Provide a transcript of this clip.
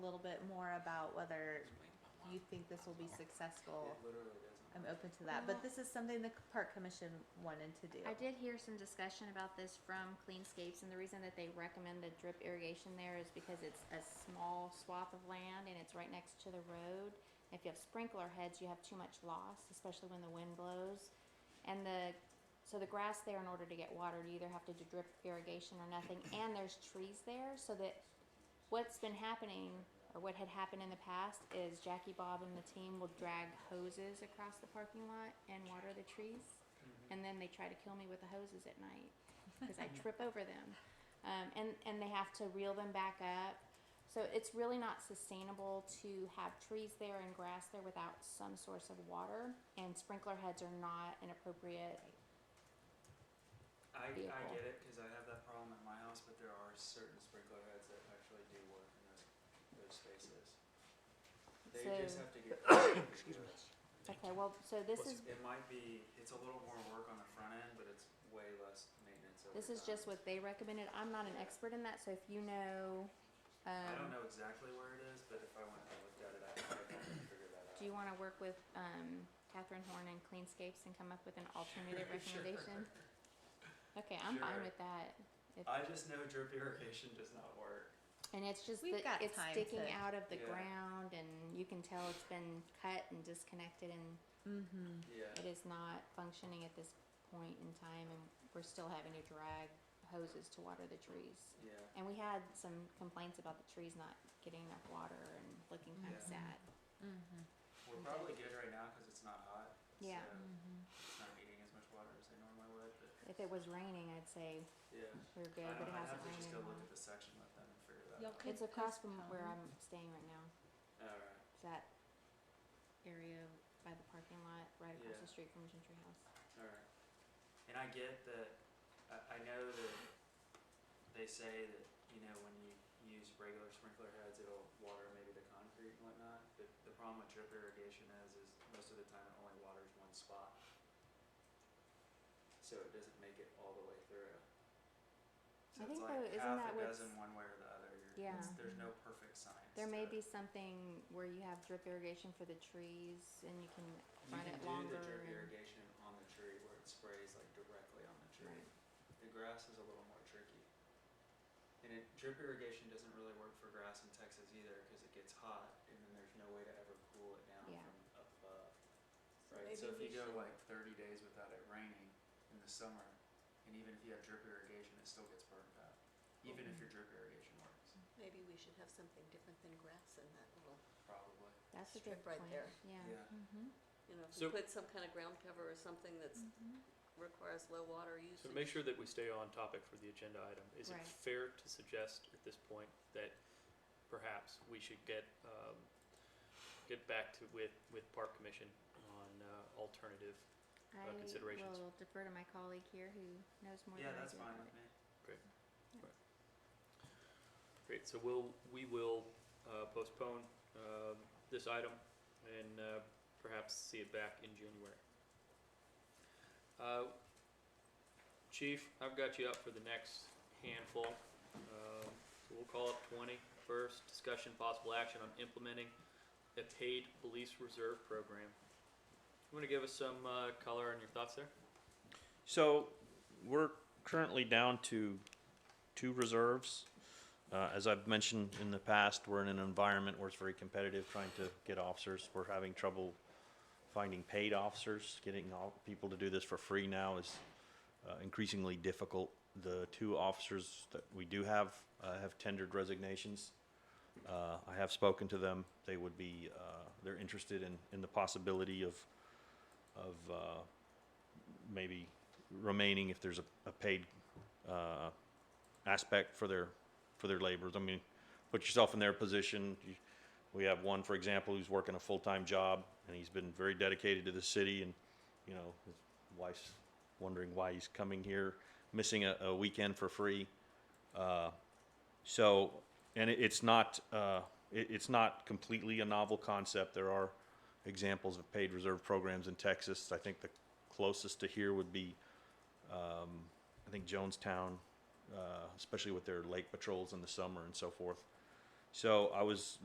little bit more about whether you think this will be successful, I'm open to that. But Well- this is something the c- park commission wanted to do. I did hear some discussion about this from Cleanscapes, and the reason that they recommend the drip irrigation there is because it's a small swath of land and it's right next to the road. If you have sprinkler heads, you have too much loss, especially when the wind blows. And the, so the grass there, in order to get watered, you either have to do drip irrigation or nothing, and there's trees there, so that what's been happening or what had happened in the past is Jackie Bob and the team will drag hoses across the parking lot and water the trees and then they try to kill me with the hoses at night because I trip over them, um, and and they have to reel them back up. So it's really not sustainable to have trees there and grass there without some source of water, and sprinkler heads are not an appropriate. I, I vehicle. get it, cause I have that problem at my house, but there are certain sprinkler heads that actually do work in those, those spaces. They just So- have to get. Excuse me. Okay, well, so this is It might be, it's a little more work on the front end, but it's way less maintenance over time. this is just what they recommended. I'm not an expert in that, so if you know, I don't um, know exactly where it is, but if I went and looked at it, I could probably figure that out. do you want to work with um, Catherine Horn and Cleanscapes and come up with an alternative Sure. recommendation? Okay, I'm fine Sure. with that. If- I just know drip irrigation does not work. And it's just We've got that it's time sticking to- out of the Yeah. ground, and you can tell it's been cut and disconnected, and Mm-hmm. Yeah. it is not functioning at this point in time. And we're still having to drag hoses to water the trees. Yeah. And we had some complaints about the trees not getting enough water and looking kind of Yeah. sad. Mm-hmm. We're probably good right now because it's not hot. Yeah. So Mm-hmm. it's not eating as much water as they normally would, but If it was raining, I'd say yeah. we're I good, but don't Uh, it I'd hasn't have to rained just in go a look at while. the section with them and figure that Y'all out. could It's across from where postpone. I'm staying right now. Alright. It's that area by the parking lot, right across Yeah. the street from Gentry House. Alright. And I get that, I, I know that they say that, you know, when you use regular sprinkler heads, it'll water maybe the concrete and whatnot, but the problem with drip irrigation is, is most of the time it only waters one spot. So it doesn't make it all the way through. So I it's think like though, isn't half that a what's- dozen one way or the other, you're, Yeah. it's- there's no perfect science. There may to it. be something where you have drip irrigation for the trees and you can You run can it do longer the drip and- irrigation on the tree where it sprays like directly on the tree. Right. The grass is a little more tricky. And it, drip irrigation doesn't really work for grass in Texas either because it gets hot and then there's no way to ever cool it down Yeah. from up above. Right, so if you go like thirty days without it raining in the summer, and even if you have drip irrigation, it still gets burned up, even Mm-hmm. if your drip irrigation works, Maybe we should have something different than grass in that little, probably. that's a good Strip right point, there. yeah. Mm-hmm. you know, if you So- put some kind of ground cover or something that's, Mm. mm-hmm. requires low water usage. So to make sure that we stay on topic for the agenda item, is it Right. fair to suggest at this point that perhaps we should get, um, get back to with, with Park Commission on, uh, alternative? Uh, I considerations. will defer to my colleague here who knows more Yeah, than I that's do fine about with it. me. Great, so we'll, we will, uh, postpone, um, this item and, uh, perhaps see it back in January. Uh, Chief, I've got you up for the next handful. Um, so we'll call up 20 first. discussion possible action on implementing a paid police reserve program. You want to give us some uh, color on your thoughts there? So we're currently down to two reserves. Uh, as I've mentioned in the past, we're in an environment where it's very competitive trying to get officers. We're having trouble finding paid officers. Getting all people to do this for free now is uh, increasingly difficult. The two officers that we do have uh, have tendered resignations. Uh, I have spoken to them. They would be uh, they're interested in, in the possibility of of uh, maybe remaining if there's a, a paid uh, aspect for their for their labors. I mean, put yourself in their position. You- We have one, for example, who's working a full time job and he's been very dedicated to the city, and you know his wife's wondering why he's coming here, missing a, a weekend for free. Uh, so, and it, it's not uh, it, it's not completely a novel concept. There are examples of paid reserve programs in Texas. I think the closest to here would be, um, I think Jonestown, uh, especially with their lake patrols in the summer and so forth. So I was